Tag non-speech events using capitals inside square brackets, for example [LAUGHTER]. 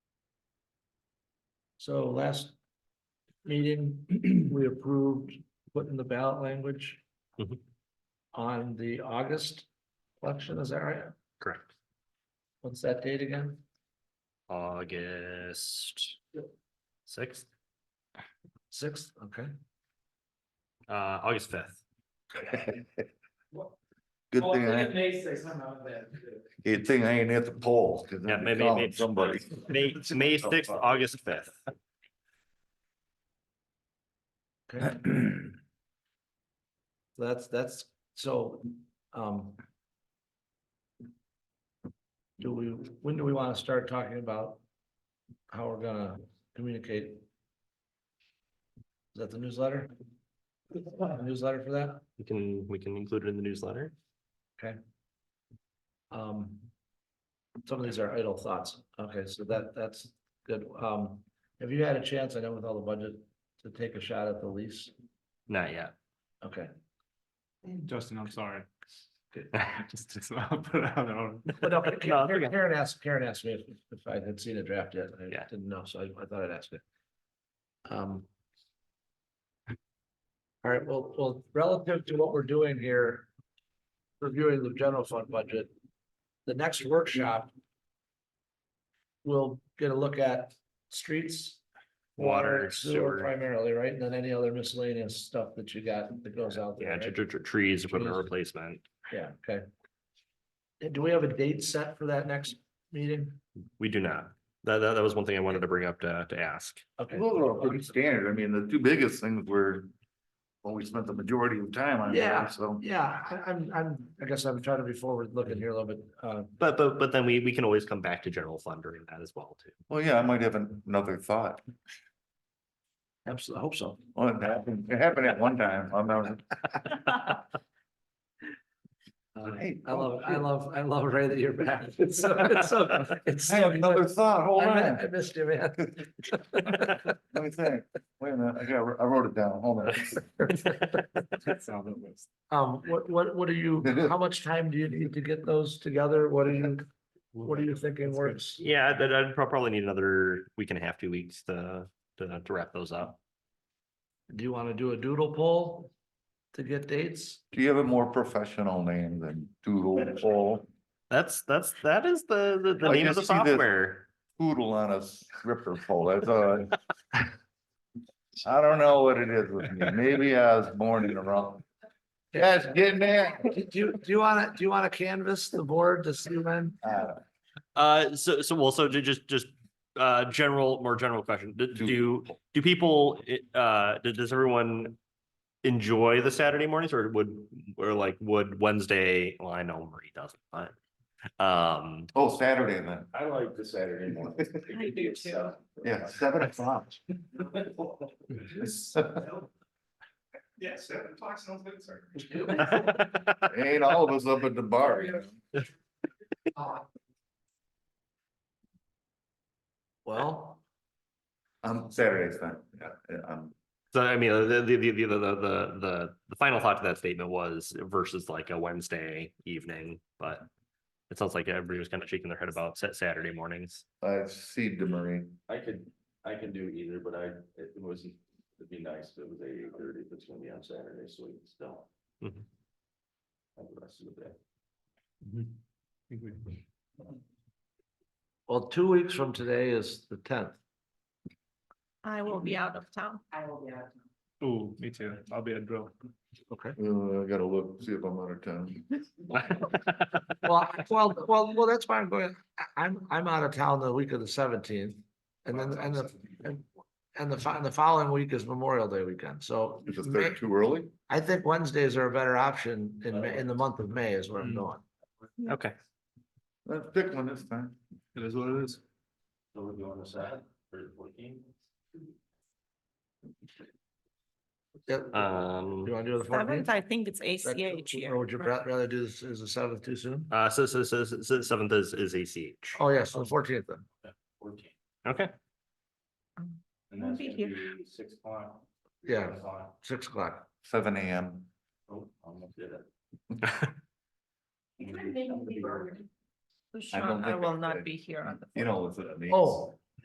So last meeting, [CLEARS THROAT] we approved putting the ballot language Mhm. on the August election, is that right? Correct. What's that date again? August sixth, Sixth, okay. uh, August fifth. Good Well, thing, I Oh, it ain't- may say something about that. good thing I ain't at the poll. 'cause I'd Yeah, be maybe, calling maybe. [LAUGHS] Somebody. May, May sixth, August fifth. Okay, so that's, that's, so, um. Do we, when do we want to start talking about how we're gonna communicate? Is that the newsletter? Newsletter for that? We can, we can include it in the newsletter. Um. Some of these are idle thoughts. Okay, so that, that's good. Um, have you had a chance, I know with all the budget, to take a shot at the lease? Not yet. Okay, Justin, I'm [LAUGHS] sorry. Just- It's not put out on. but no, No, it's [LAUGHS] okay. Karen Karen asked, Karen asked me if, if I had seen a draft yet. I Yeah. didn't know, so I, I thought I'd ask it. Um. All right, well, well, relative to what we're doing here. Reviewing the general fund budget. The next workshop. We'll get a look at streets. Water, Sewer sewer. primarily, right? And then any other miscellaneous stuff that you got that goes out there. Yeah, right? tr- tr- tr- trees, equipment Trees. replacement. Yeah, okay. And Do we have a date set for that next meeting? We do not. That, that, that was one thing I wanted to bring up to, to ask. Okay, Those are all pretty standard. I mean, the two biggest things were, well, we spent the majority of time on Yeah. there, so. yeah, I, I'm, I'm, I guess I'm trying to be forward looking here a little bit, uh, But, but, but then we, we can always come back to general fund during that as well [LAUGHS] too. [LAUGHS] Well, yeah, I might have an- another thought. absolutely, I hope so. Well, it happened, it happened at one time. I'm not. Uh, Hey, I love, I love, I love Ray that you're [LAUGHS] back. It's so, it's so, it's I so. have another thought. Hold I mi- on. I missed you, man. Let me think. Wait a minute. I got, I wrote it down. Hold on. Um, what, what, what are [LAUGHS] you, how much time do you need to get those together? What are you, what are you thinking works? Yeah, that, I'd prob- probably need another week and a half, two weeks to, to, to wrap those up. Do you want to do a doodle poll to get dates? Do you have a more professional name than Doodle Poll? That's, that's, that is the, the, the I name of just the see this- software. poodle on a stripper pole, that's all. I- [LAUGHS] I don't know what it is with me, maybe I was born in the wrong. Yes, getting there. Do you, do you wanna, do you wanna canvas the board to see when? Uh, Uh, so, so, well, so ju- just, just, uh, general, more general question. Do, Do- do, do people, i- uh, d- does everyone enjoy the Saturday mornings or would, or like, would Wednesday, well, I know Marie doesn't, but, um, [LAUGHS] Oh, Saturday then, I like the Saturday morning. I do too. yeah, seven o'clock. [LAUGHS] Yeah, seven o'clock sounds good, sir. Ain't all of us up at the bar. you know? [LAUGHS] Well, Um, Saturday's fine, yeah, yeah, um, So I mean, the, the, the, the, the, the, the, the final thought to that statement was versus like a Wednesday evening, but it sounds like everybody was kind of shaking their head about Sa- Saturday mornings. I see DeMarie, I could, I can do either, but I, it was, it'd be nice if it was eight thirty, if it's gonna be on Saturday, so we can still. Mhm. Have the rest of the day. well, two weeks from today is the tenth. I will be out of town. Ooh, me too. I'll be a drill. Okay. Uh, I gotta look, see if I'm out of town. Well, I- well, well, well, that's why I'm going, I- I'm, I'm out of town the week of the seventeenth. And then, and the, and, and the, fo- and the following week is Memorial Day weekend, so. Is it May- there too early? I think Wednesdays are a better option in, Ma- in the month of May is where I'm Mm. going. Okay. Let's pick one this time. It is what it is. So we're going to Saturday, thirty fourteen. Yep. You Um, wanna do the fourteenth? Seventh, I think it's ACH Or here. would you ra- rather do this as the seventh too soon? uh, so, so, so, so so seventh is, is ACH. Oh, yes, the fourteenth then. Fourteen. Okay. And I'll that's be gonna be six o'clock. Yeah. seven o'clock. Six o'clock. Seven AM. Oh, I'm gonna do that. You can make it be early. I don't Sean, I think I will could. not be here on the. You know, it's. it means. Oh,